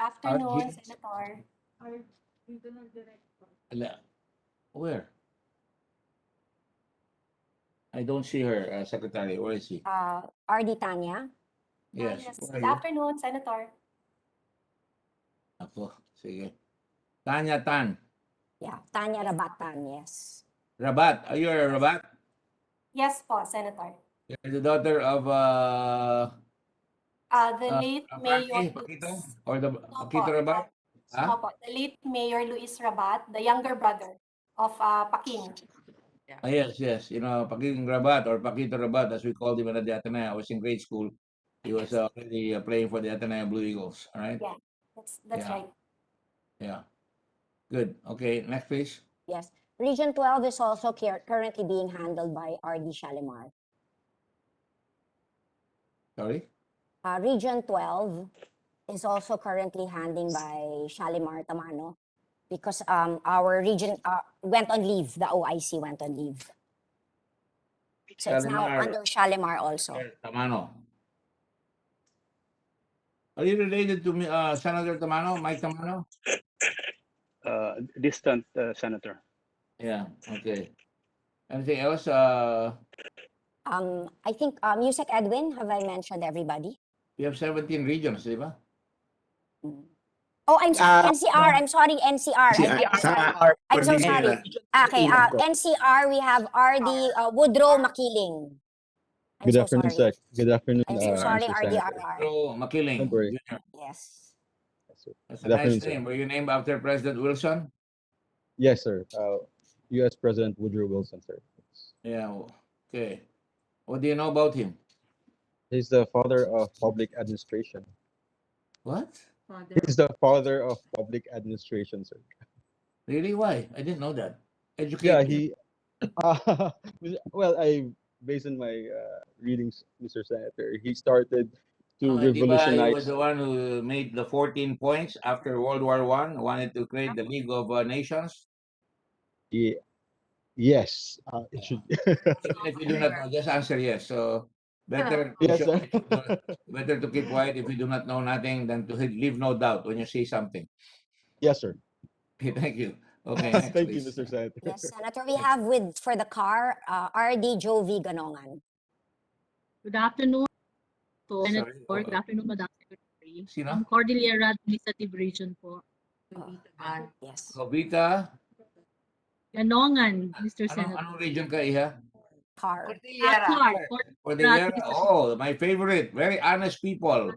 Afternoon, yes. Senator. Or dito ng director. Ala- Where? I don't see her, uh, Secretary. Where is she? Uh, RD Tanya. Ah, Yes. where Good are you? afternoon, Senator. Ako, sige. Tanya Tan. Yeah, Tanya Rabatan, yes. Rabat. Are you a Rabat? Yes po, Senator. You're the daughter of uh, Uh, the Ah, late Mayor Rabat, Pakito? Luis. Or the No po, Pakito Rabat? Ah, uh, no po, the late Mayor Luis Rabat, the younger brother of uh, Paking. Ah, yes, yes. You know, Paking Rabat or Pakito Rabat, as we called him at the Ateneo. I was in grade school. He was already uh, playing for the Ateneo Blue Eagles. All right? Yeah. That's, that's Yeah. right. Yeah. Good. Okay, next please. Yes. Region 12 is also cur- currently being handled by RD Shalimar. Sorry. Uh, Region 12 is also currently handling by Shalimar Tamano because um, our region uh, went on leave. The OIC went on leave. So it's now Shalimar. under Shalimar also. Senator Tamano. Are you related to me, uh, Senator Tamano, Mike Tamano? uh, distant uh, senator. Yeah, okay. Anything else? Uh, Um, I think uh, Music Edwin, have I mentioned everybody? we have 17 regions, di ba? Oh, I'm sorry, Uh, NCR. I'm sorry, NCR. Si- I'm, I'm sa- sorry. or- I'm so Cornelia. sorry. Okay, Ilan uh, po? NCR, we have RD uh, Woodrow Makiling. I'm Good so afternoon, sorry. Sec. Good afternoon. I'm so uh, sorry, Mr. Senator. RDRR. Pedro Makiling. Don't worry. Jr. Yes. That's a nice Definitely, sir. name. Were you named after President Wilson? Yes, sir. Uh, U.S. President Woodrow Wilson, sir. Yeah, w- okay. What do you know about him? He's the father of public administration. What? Father. He's the father of public administration, sir. Really? Why? I didn't know that. Yeah, Educate me. he. Uh, well, I based on my uh, readings, Mr. Senator, he started to Uh, di ba he was revolutionize. the one who made the 14 points after World War One, wanted to create the League of uh, Nations. Ye- Yes, uh, it should. Even if you do not know, just answer yes. So better to yes, show- sir. better to keep quiet if you do not know nothing than to leave no doubt when you see something. yes, sir. Okay, thank you. Okay. next, Thank you, please. Mr. Senator. Yes, Senator, we have with, for the car, uh, RD Jovi Ganongan. Good afternoon to Sorry, Senator. Good oo. afternoon, Madam Secretary. Sino? Ang Cordillera Administrative Region po. Ah. Yes. Uh-huh. Kobita, Ganongan, Mr. anong, Senator. anong region ka, Iha? Car. Ah, Clark, Cor- Cordillera. Mr. Oh, my favorite. Very honest people.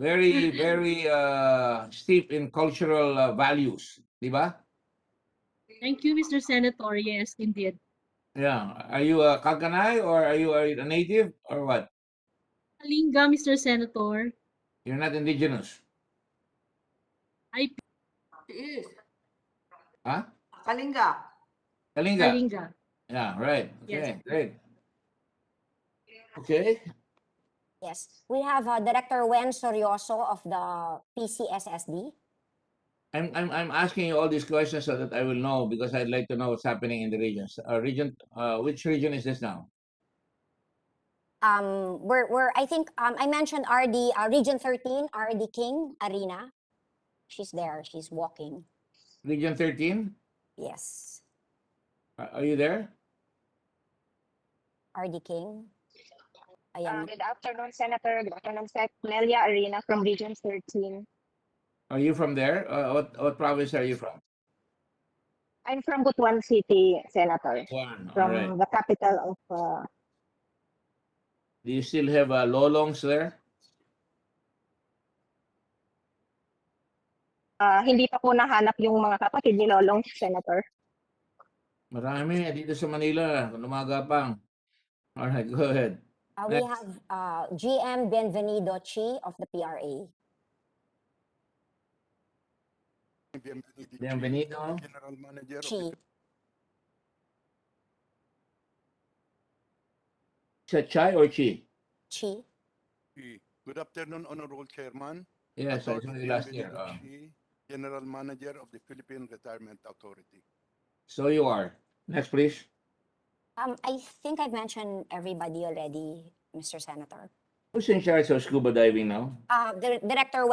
Very, very uh, steep in cultural uh, values. Di ba? Thank you, Mr. Senator. Yes, indeed. Yeah. Are you a Kalkanay or are you a native or what? Kalinga, Mr. Senator. You're not indigenous. IP She is. Huh? Kalinga. Kalinga. Kalinga. Yeah, right. Yes. Okay, great. Okay, Yes. We have uh, Director Wen Sorioso of the PCSSD. I'm, I'm, I'm asking you all these questions so that I will know because I'd like to know what's happening in the regions. Uh, region, uh, which region is this now? Um, we're, we're, I think, um, I mentioned RD, uh, Region 13, RD King, Arena. She's there, she's walking. Region thirteen? Yes, Are, are you there? RD King. Uh, Ayan, Good afternoon, Senator. Good afternoon, Sec. Nelia Arena from Region 13. Are you from there? Uh, what, what province are you from? I'm from Butuan City, Senator, One, all from right. the capital of uh, Do you still have, uh, lolongs there? ah, hindi pa po nahanap yung mga kapatid ni Lolong, Senator. Marami, dito sa Manila, lumagapang. All right, go ahead. uh, we next. have, uh, GM Benvenido Chi of the PRA. Bienvenido. Bienvenido. General Manager of Chi, the Cha- Chai or Chi? Chi, PE. Good afternoon, Honorable Chairman. Yes, I saw Attorney you last year. Bienvenido Uh, Chi, General Manager of the Philippine Retirement Authority. So you are. Next, please. um, I think I've mentioned everybody already, Mr. Senator. Who's in charge of scuba diving now? Uh, Dir- Director